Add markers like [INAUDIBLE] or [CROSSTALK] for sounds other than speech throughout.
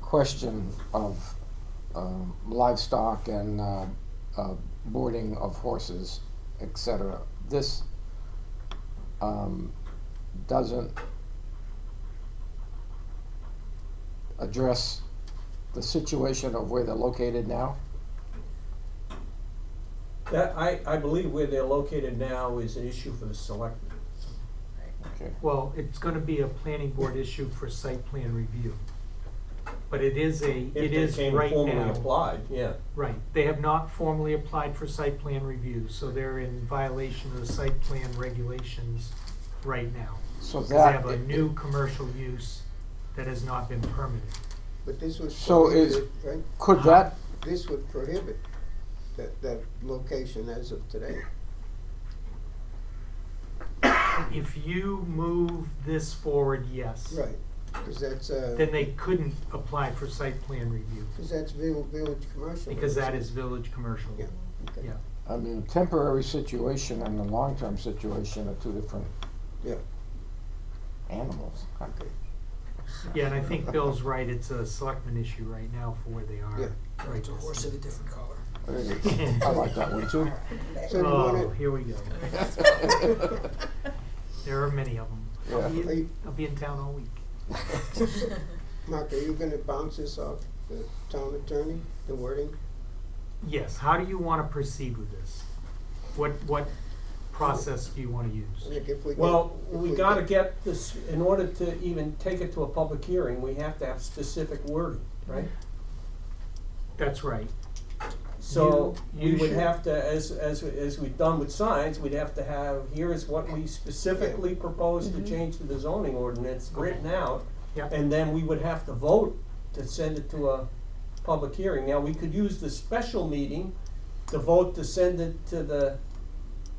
question of um, livestock and uh, uh, boarding of horses, et cetera, this um, doesn't address the situation of where they're located now? That, I, I believe where they're located now is an issue for the selectmen. Okay. Well, it's gonna be a planning board issue for site plan review. But it is a, If it they is came right formally now, applied, yeah. right, they have not formally applied for site plan review, so they're in violation of the site plan regulations right now. So Cause they that. have a new commercial use that has not been permitted. But this was. So is- prohibited, Right, Could that, this would prohibit that, that location as of today. If you move this forward, yes. Right, because that's, Then uh, they couldn't apply for site plan review, because that's Village, Village Commercial. because that is village commercial. Yeah, okay. Yeah. I mean, temporary situation and the long-term situation are two different Yeah, animals. okay, Yeah, and I think Bill's right, it's a selectman issue right now for where they yeah. are. right It's a this horse second. of a different color. There you go. I like that one [LAUGHS] too. So do you Oh, wanna, here we go. There are many of them. I'll Yeah. Are be, you- I'll be in town all week. Mark, are you gonna bounce this off the town attorney, the wording? Yes, how do you wanna proceed with this? What, what process do you wanna use? Like if we. get- Well, if we gotta get this, in order to even take it to a public hearing, we have to have specific wording, right? That's right. So You- we you would should- have to, as, as, as we've done with signs, we'd have to have, here is what we specifically propose Mm-hmm. to change to the zoning ordinance written out. Yeah. And then we would have to vote to send it to a public hearing. Now, we could use the special meeting to vote to send it to the,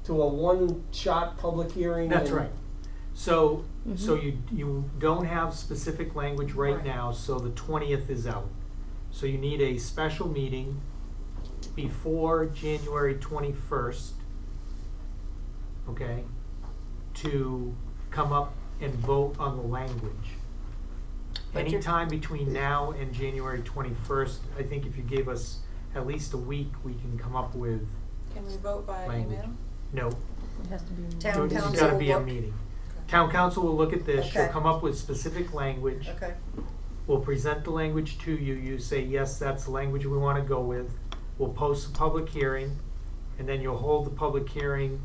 to a one-shot public hearing. That's and- right. So, Mm-hmm. so you, you don't have specific language right now, so the twentieth is out. So you need a special meeting before January twenty-first, okay? To come up and vote on the language. But you're- Anytime between now and January twenty-first, I think if you gave us at least a week, we can come up with, [LAUGHS] Can we vote by Language. email? no, It has to be. Town it's council gotta be a will look- meeting. Town council will look at this, she'll Okay. come up with specific language. Okay, We'll present the language to you, you say, yes, that's the language we wanna go with. We'll post the public hearing, and then you'll hold the public hearing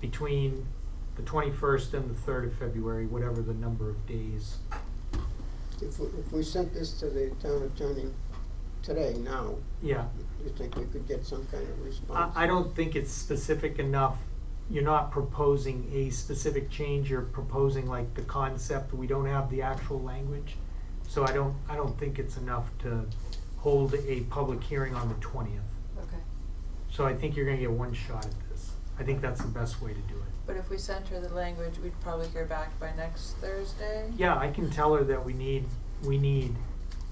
between the twenty-first and the third of February, whatever the number of days. If we, if we sent this to the town attorney today, now, Yeah, you think we could get some kind of response? I, I don't think it's specific enough. You're not proposing a specific change, you're proposing like the concept, we don't have the actual language. So I don't, I don't think it's enough to hold a public hearing on the twentieth. Okay. So I think you're gonna get one shot at this. I think that's the best way to do it. But if we sent her the language, we'd probably hear back by next Thursday? Yeah, I can tell her that we need, we need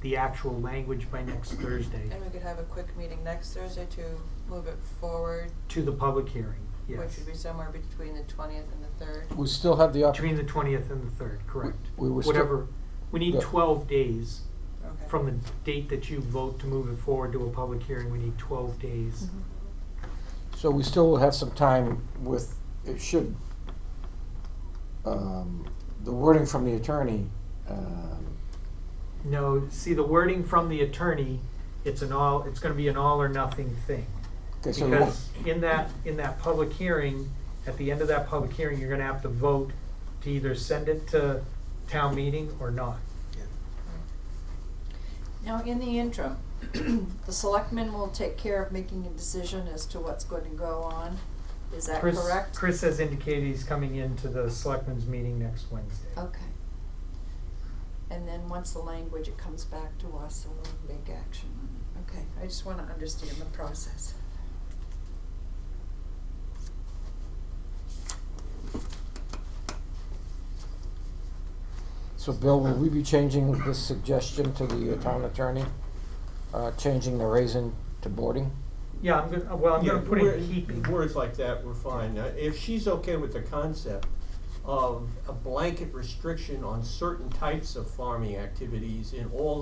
the actual language by next Thursday And we could have a quick meeting next Thursday to move it forward, to the public hearing, which yes. would be somewhere between the twentieth and the third. We still have the opportunity. Between the twentieth and the third, correct. We were still- Whatever, we need Yeah. twelve days Okay. from the date that you vote to move it forward to a public hearing, we need twelve days. Mm-hmm. So we still have some time with, it should, um, the wording from the attorney, um, No, see, the wording from the attorney, it's an all, it's gonna be an all or nothing thing. okay, so the, Because in that, in that public hearing, at the end of that public hearing, you're gonna have to vote to either send it to town meeting or not. Now, in the interim, [CLEARS THROAT] the selectmen will take care of making a decision as to what's going to go on. Is that Chris- correct? Chris has indicated he's coming into the selectmen's meeting next Wednesday. Okay. And then once the language, it comes back to us and we'll make action on it. Okay, I just want to understand the process. so Bill, will we be changing this suggestion to the town attorney? Uh, changing the raisin to boarding? Yeah, I'm gonna, well, I'm Yeah, gonna put wor- in keeping. Words like that, we're fine. Uh, If she's okay with the concept of a blanket restriction on certain types of farming activities in all